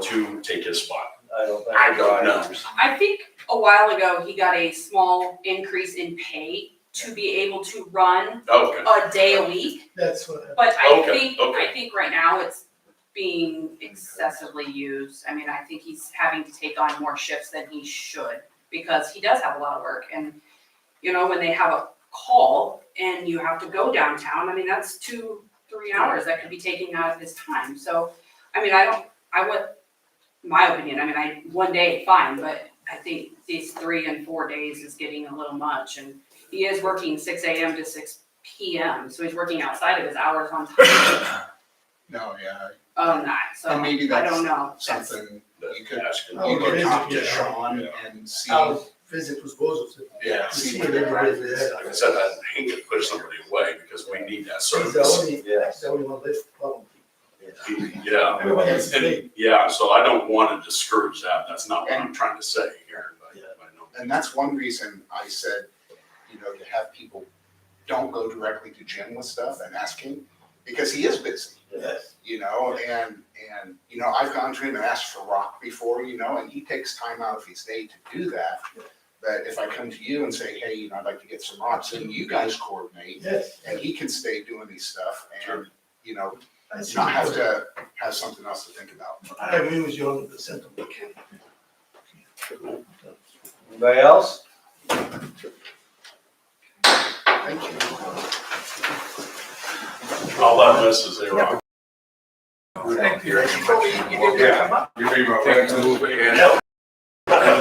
to take his spot? I don't think. I don't know. drivers- I think a while ago, he got a small increase in pay to be able to run Okay, a day a week. That's what I. But I Okay, think, I okay. think right now it's being excessively used. I mean, I think he's having to take on more shifts than he should because he does have a lot of work. And, you know, when they have a call and you have to go downtown, I mean, that's two, three hours that could be taken out of his time. So, I mean, I don't, I would, my opinion, I mean, I, one day, fine, but I think these three and four days is getting a little much and he is working six AM to six PM, so he's working outside of his hours on time. No, yeah, Oh, night, so And I maybe don't know. That's- something you that's could, asking. Oh, you it could is, talk to yeah. Sean Yeah. and see, Oh. I'll visit with Bozo's. Yeah. See what everybody is. Like I said, I hate to push somebody away because we need that He's the service. only, Yeah. he's the only one left. problem. Yeah, Everyone has to pay. and, yeah, so I don't want to discourage that. That's not what I'm trying to say here, but I know. and that's one reason I said, you know, to have people don't go directly to Jim with stuff and ask him, because he is busy, Yes. you know, and, and, you know, I've gone to him and asked for rock before, you know, and he takes time out of his day to do that. But if I come to you and say, hey, you know, I'd like to get some rocks, and you guys coordinate, Yes. and he can stay doing these stuff and, you know, I see. not have to have something else to think about. I agree with you on the sentiment. Anybody else? Thank you. I'll let this as they rock. Thank you. You leave my friends a little bit. No.